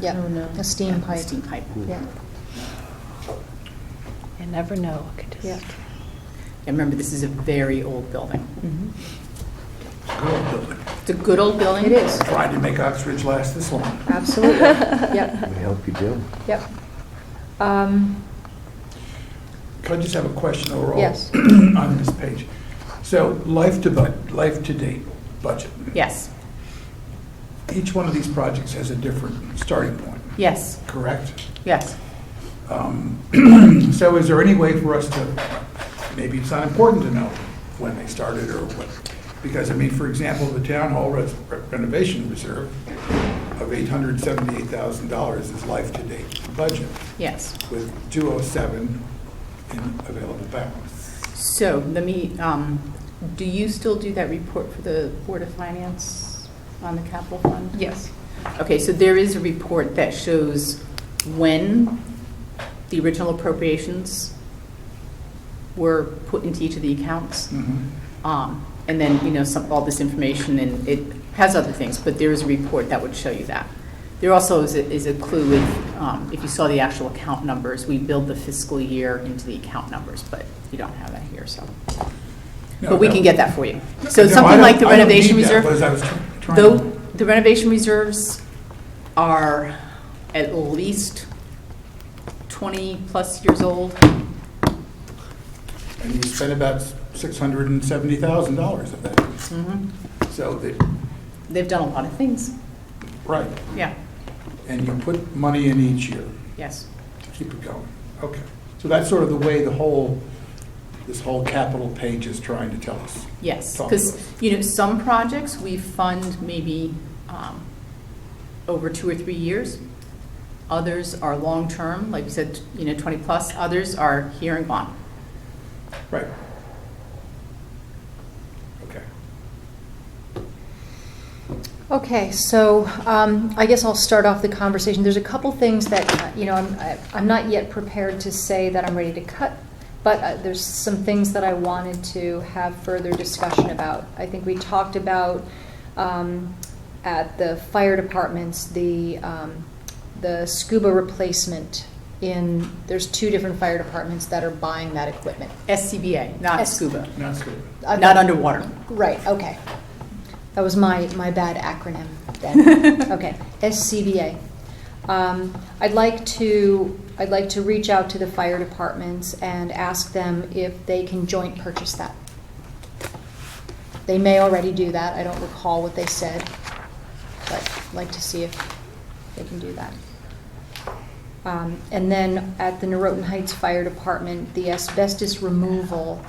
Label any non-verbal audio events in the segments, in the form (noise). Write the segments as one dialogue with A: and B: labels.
A: Yeah.
B: Oh, no.
A: A steam
B: Yeah,
A: pipe.
B: Steam pipe.
A: Yeah.
C: You never know. It could
A: Yeah.
C: just-
B: And remember, this is a very old building.
A: Mhm.
D: Good building.
B: It's a good old building.
A: It is,
D: Tried to make Oxbridge last this long.
E: (laughs)
A: absolutely. Yep,
E: We hope you do.
A: yep. Um,
D: Could I just have a question overall?
A: Yes.
D: (clears throat) On this page. So life to bud, life to date budget.
B: Yes,
D: Each one of these projects has a different starting point,
B: yes,
D: correct?
B: yes.
D: Um, So is there any way for us to, maybe it's not important to know when they started or what? Because, I mean, for example, the town hall res- renovation reserve of $878,000 is life-to-date budget
B: Yes.
D: with 207 in available balance.
B: So let me, um, do you still do that report for the Board of Finance on the capital fund?
A: yes,
B: Okay, so there is a report that shows when the original appropriations were put into each of the accounts. Um, And then, you know, some, all this information, and it has other things, but there is a report that would show you that. There also is a, is a clue with, um, if you saw the actual account numbers, we build the fiscal year into the account numbers, but you don't have that here, so.
D: No,
B: But we
D: no.
B: can get that for you. So
D: No, I
B: something like
D: don't-
B: the
D: I don't need
B: renovation
D: that,
B: reserve.
D: but as I was try- trying to-
B: Though, the renovation reserves are at least 20-plus years old.
D: And you spent about $670,000 of that. Mm-hmm. So that,
B: They've done a lot of things.
D: right,
B: Yeah,
D: and you put money in each year.
B: yes.
D: Keep it going. Okay. So that's sort of the way the whole, this whole capital page is trying to tell us.
B: Yes,
D: Talk to
B: because,
D: us.
B: you know, some projects we fund maybe um, over two or three years. Others are long-term, like you said, you know, 20-plus. Others are here and gone.
D: Right. Okay.
A: okay, so um, I guess I'll start off the conversation. There's a couple things that, uh, you know, I'm, I- I'm not yet prepared to say that I'm ready to cut, but uh, there's some things that I wanted to have further discussion about. I think we talked about um, at the fire departments, the, um, the scuba replacement in, there's two different fire departments that are buying that equipment.
B: SCBA, not
A: S-
B: scuba,
D: Now it's good.
A: Uh,
B: not underwater.
A: Right, okay. That was my, my bad acronym
B: (laughs)
A: then. Okay, SCBA. Um, I'd like to, I'd like to reach out to the fire departments and ask them if they can joint purchase that. They may already do that, I don't recall what they said, but I'd like to see if they can do that. Um, And then at the Norotan Heights Fire Department, the asbestos removal,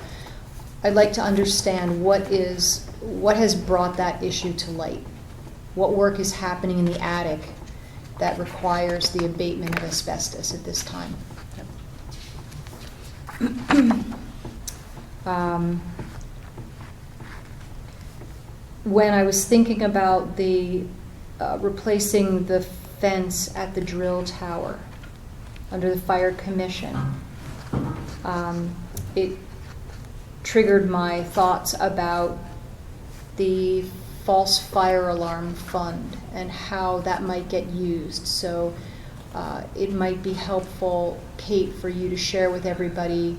A: I'd like to understand what is, what has brought that issue to light? What work is happening in the attic that requires the abatement of asbestos at this time? (clears throat) Um, When I was thinking about the, uh, replacing the fence at the drill tower under the fire commission, um, it triggered my thoughts about the false fire alarm fund and how that might get used. So uh, it might be helpful, Kate, for you to share with everybody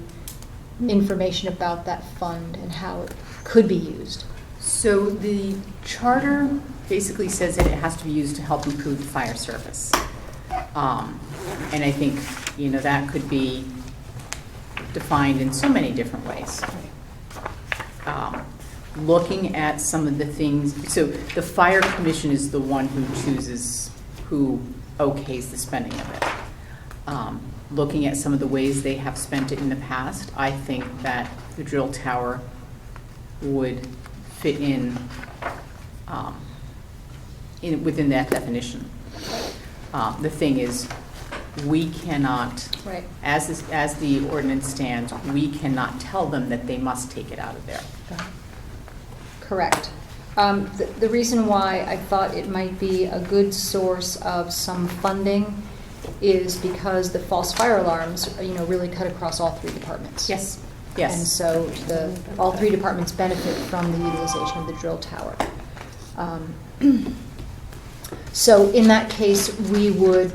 A: information about that fund and how it could be used.
B: So the charter basically says that it has to be used to help improve the fire service. Um, And I think, you know, that could be defined in so many different ways. Um, Looking at some of the things, so the fire commission is the one who chooses, who okays the spending of it. Um, Looking at some of the ways they have spent it in the past, I think that the drill tower would fit in, um, in, within that definition. Um, The thing is, we cannot,
A: Right.
B: as, this- as the ordinance stands, we cannot tell them that they must take it out of there.
A: Correct. Um, th- The reason why I thought it might be a good source of some funding is because the false fire alarms, you know, really cut across all three departments.
B: Yes,
A: And
B: yes.
A: so the, all three departments (clears throat) benefit from the utilization of the drill tower. Um, So in that case, we would